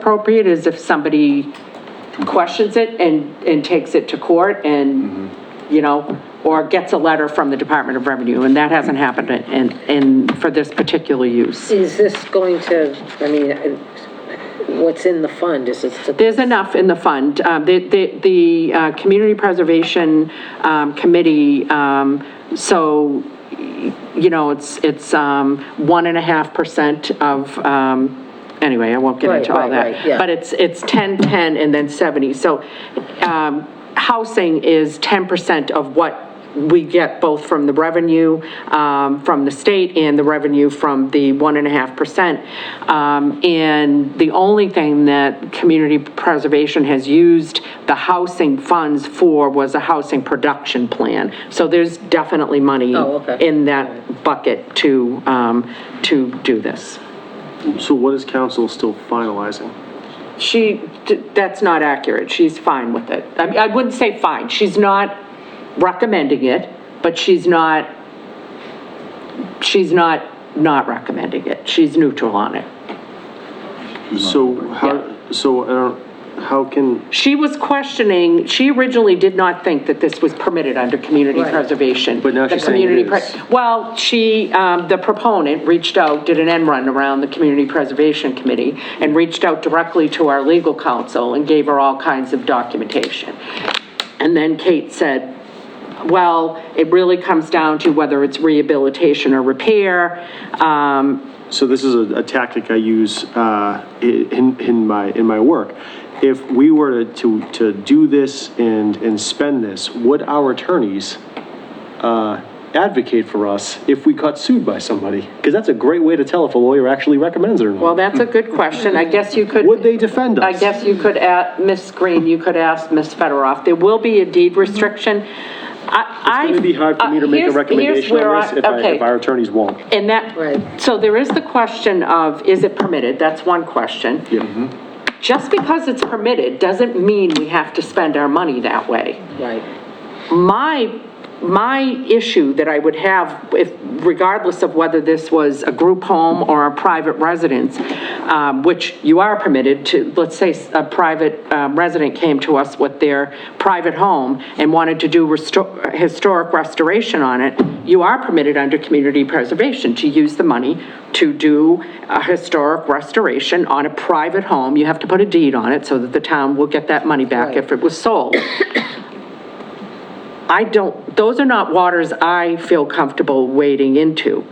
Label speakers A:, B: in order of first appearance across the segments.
A: appropriate is if somebody questions it and, and takes it to court and,
B: Mm-hmm.
A: you know, or gets a letter from the Department of Revenue, and that hasn't happened in, in, for this particular use.
B: Is this going to, I mean, what's in the fund, is it to
A: There's enough in the fund. Um, The, the, the uh, Community Preservation um, Committee, um, so, you know, it's, it's um, one and a half percent of, um, anyway, I won't get
B: Right,
A: into all
B: right,
A: that.
B: right, yeah.
A: But it's, it's 10, 10, and then 70. So um, housing is 10% of what we get both from the revenue um, from the state and the revenue from the 1.5%. Um, And the only thing that Community Preservation has used the housing funds for was a housing production plan. So there's definitely money
B: Oh, okay.
A: in that bucket to, um, to do this.
C: So what is council still finalizing?
A: She, th- that's not accurate. She's fine with it. I mean, I wouldn't say fine. She's not recommending it, but she's not, she's not not recommending it. She's neutral on it.
C: So
A: Yeah.
C: how, so I don't, how can,
A: She was questioning, she originally did not think that this was permitted under community
B: Right.
A: preservation.
C: But now
A: The
C: she's saying it
A: community pre-
C: is.
A: Well, she, um, the proponent reached out, did an end run around the Community Preservation Committee and reached out directly to our legal counsel and gave her all kinds of documentation. And then Kate said, well, it really comes down to whether it's rehabilitation or repair. Um,
C: so this is a a tactic I use uh, i- in, in my, in my work. If we were to, to to do this and, and spend this, would our attorneys uh, advocate for us if we got sued by somebody? Because that's a great way to tell if a lawyer actually recommends it or
A: Well,
C: not.
A: that's a good question. I guess you could.
C: Would they defend us?
A: I guess you could ask, Ms. Green, you could ask Ms. Federoff. There will be a deed restriction. I, I.
C: It's going to be hard for me to make a
A: Uh, Here's- here's
C: recommendation
A: where
C: on
A: I-
C: this if I-
A: okay.
C: if our attorneys won't.
A: And
B: Right.
A: that, so there is the question of, is it permitted? That's one question.
C: Mm-hmm.
A: Just because it's permitted doesn't mean we have to spend our money that way.
B: Right,
A: My, my issue that I would have, if, regardless of whether this was a group home or a private residence, um, which you are permitted to, let's say a private um, resident came to us with their private home and wanted to do restor- historic restoration on it, you are permitted under community preservation to use the money to do a historic restoration on a private home. You have to put a deed on it so that the town will get that money back if it was sold. I don't, those are not waters I feel comfortable wading into.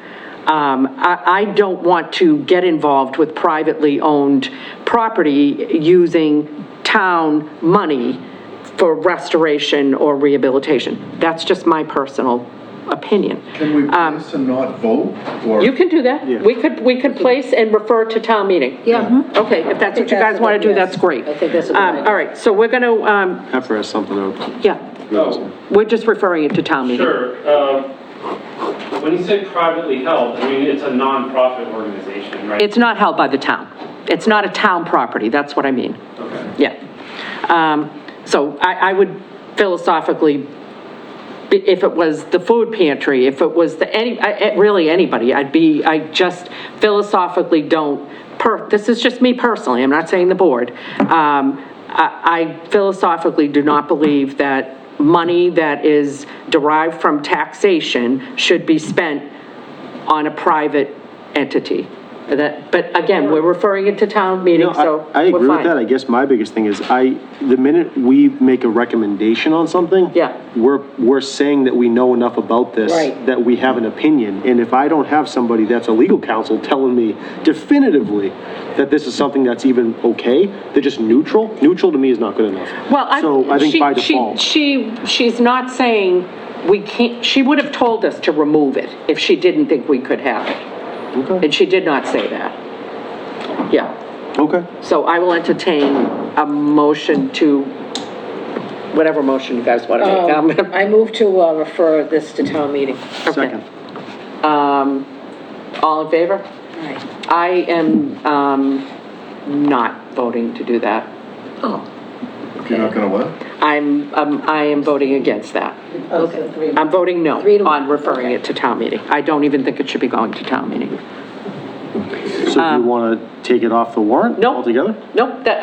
A: Um, I, I don't want to get involved with privately owned property using town money for restoration or rehabilitation. That's just my personal opinion.
D: Can we please to not vote? or-
A: Um, You can do that. We could, we could place and refer to town meeting.
B: Yeah. Mhm.
A: Okay, if that's what you guys want to do, that's great.
B: I think that's a good
A: Um,
B: idea.
A: All right, so we're going to, um,
C: Have her ask something else.
A: yeah,
E: Oh,
A: we're just referring it to town meeting.
E: sure. Um, When you say privately held, I mean, it's a nonprofit organization, right?
A: It's not held by the town. It's not a town property, that's what I mean.
E: Okay.
A: Yeah. Um, So I, I would philosophically, i- if it was the food pantry, if it was the, any, I- I- really anybody, I'd be, I just philosophically don't, per, this is just me personally, I'm not saying the board. Um, I I philosophically do not believe that money that is derived from taxation should be spent on a private entity. That, but again, we're referring it to town meeting,
C: No, I-
A: so
C: I
A: we're
C: agree with
A: fine.
C: that. I guess my biggest thing is I, the minute we make a recommendation on something.
A: Yeah.
C: We're, we're saying that we know enough about this.
B: Right.
C: That we have an opinion. And if I don't have somebody that's a legal counsel telling me definitively that this is something that's even okay, they're just neutral, neutral to me is not good enough.
A: Well, I.
C: So I think
A: she-
C: by
A: she-
C: default,
A: She, she's not saying we can't, she would have told us to remove it if she didn't think we could have it.
C: Okay.
A: And she did not say that. Yeah,
C: okay.
A: so I will entertain a motion to, whatever motion you guys want to make. I'm
B: Um,
A: gonna-
B: I move to uh, refer this to town meeting.
A: Oh. okay.
C: Second.
A: Um, all in favor?
B: Aye.
A: I am, um, not voting to do that.
D: You're not going to what?
A: I'm, um, I am voting against that.
B: Okay.
A: I'm voting no
B: Three to one.
A: on referring it to town meeting. I don't even think it should be going to town meeting.
C: So do you want to take it off the warrant
A: Nope.
C: altogether?
A: Nope, that,